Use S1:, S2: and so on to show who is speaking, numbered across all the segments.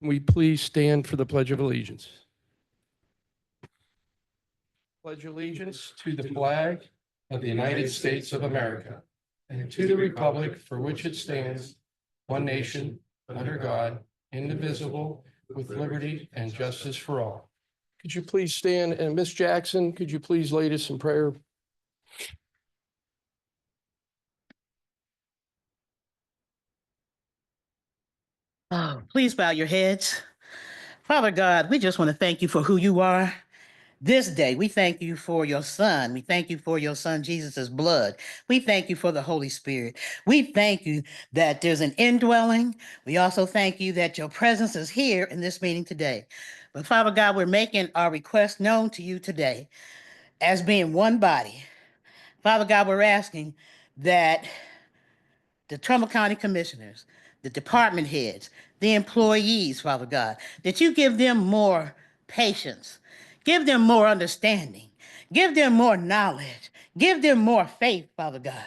S1: We please stand for the Pledge of Allegiance. Pledge allegiance to the flag of the United States of America and to the republic for which it stands, one nation, under God, indivisible, with liberty and justice for all. Could you please stand, and Miss Jackson, could you please lead us in prayer?
S2: Oh, please bow your heads. Father God, we just want to thank you for who you are. This day, we thank you for your son. We thank you for your son, Jesus' blood. We thank you for the Holy Spirit. We thank you that there's an indwelling. We also thank you that your presence is here in this meeting today. But Father God, we're making our request known to you today as being one body. Father God, we're asking that the Trumbull County Commissioners, the department heads, the employees, Father God, that you give them more patience, give them more understanding, give them more knowledge, give them more faith, Father God.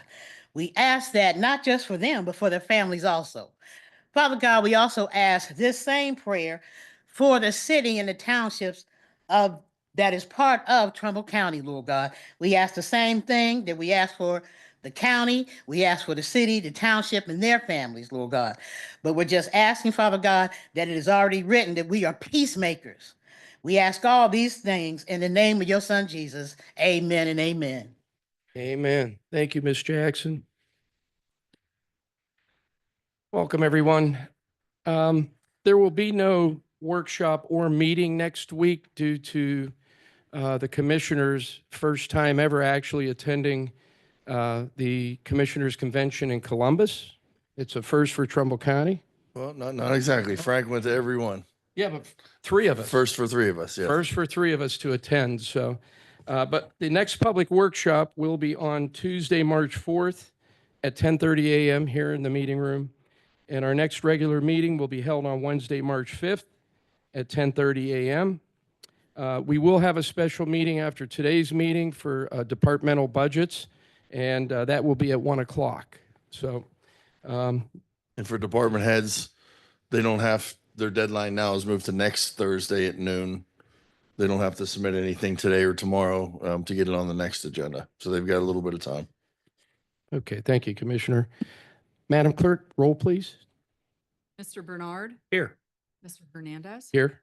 S2: We ask that not just for them, but for their families also. Father God, we also ask this same prayer for the city and the townships of that is part of Trumbull County, Lord God. We ask the same thing that we ask for the county, we ask for the city, the township, and their families, Lord God. But we're just asking, Father God, that it is already written that we are peacemakers. We ask all these things in the name of your son Jesus. Amen and amen.
S1: Amen. Thank you, Ms. Jackson. Welcome, everyone. Um, There will be no workshop or meeting next week due to uh, the commissioners' first time ever actually attending uh, the Commissioners' Convention in Columbus. It's a first for Trumbull County.
S3: Well, not, not exactly. Frank went to every one.
S1: Yeah, but three of us.
S3: First for three of us, yeah.
S1: First for three of us to attend, so. uh, But the next public workshop will be on Tuesday, March 4th at 10:30 a.m. here in the meeting room. And our next regular meeting will be held on Wednesday, March 5th at 10:30 a.m. Uh, We will have a special meeting after today's meeting for uh, departmental budgets, and uh, that will be at 1 o'clock. So um,
S3: And for department heads, they don't have, their deadline now is moved to next Thursday at noon. They don't have to submit anything today or tomorrow um, to get it on the next agenda. So they've got a little bit of time.
S1: Okay, thank you, Commissioner. Madam Clerk, roll, please.
S4: Mr. Bernard,
S1: Here.
S4: Mr. Hernandez.
S1: Here.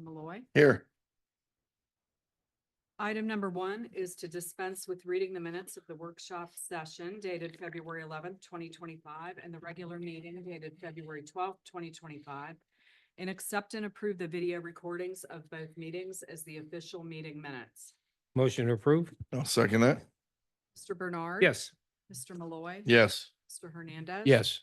S4: Malloy.
S3: Here,
S4: Item number one is to dispense with reading the minutes of the workshop session dated February eleventh, twenty twenty-five, and the regular meeting dated February twelfth, twenty twenty-five, and accept and approve the video recordings of both meetings as the official meeting minutes.
S5: Motion to approve?
S3: I'll second that.
S4: Mr. Bernard.
S5: Yes.
S4: Mr. Malloy.
S3: Yes,
S4: Mr. Hernandez.
S1: Yes.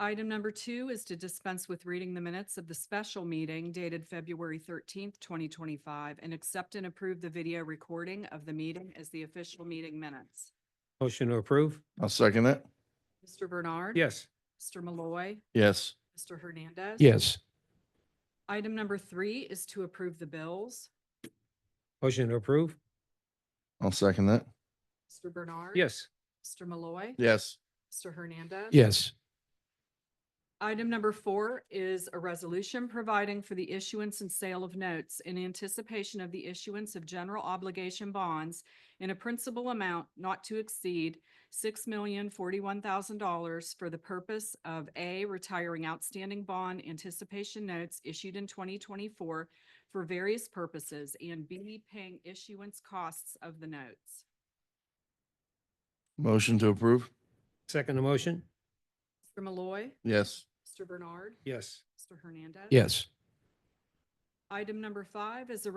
S4: Item number two is to dispense with reading the minutes of the special meeting dated February thirteenth, twenty twenty-five, and accept and approve the video recording of the meeting as the official meeting minutes.
S5: Motion to approve?
S3: I'll second that.
S4: Mr. Bernard.
S5: Yes.
S4: Mr. Malloy.
S3: Yes,
S4: Mr. Hernandez.
S1: Yes.
S4: Item number three is to approve the bills.
S5: Motion to approve?
S3: I'll second that.
S4: Mr. Bernard.
S5: Yes.
S4: Mr. Malloy.
S3: Yes,
S4: Mr. Hernandez.
S1: Yes.
S4: Item number four is a resolution providing for the issuance and sale of notes in anticipation of the issuance of general obligation bonds in a principal amount not to exceed six million forty-one thousand dollars for the purpose of A, retiring outstanding bond anticipation notes issued in twenty twenty-four for various purposes, and B, paying issuance costs of the notes.
S3: motion to approve.
S5: Second the motion?
S4: Mr. Malloy,
S3: Yes,
S4: Mr. Bernard,
S5: Yes.
S4: Mr. Hernandez.
S1: Yes.
S4: Item number five is a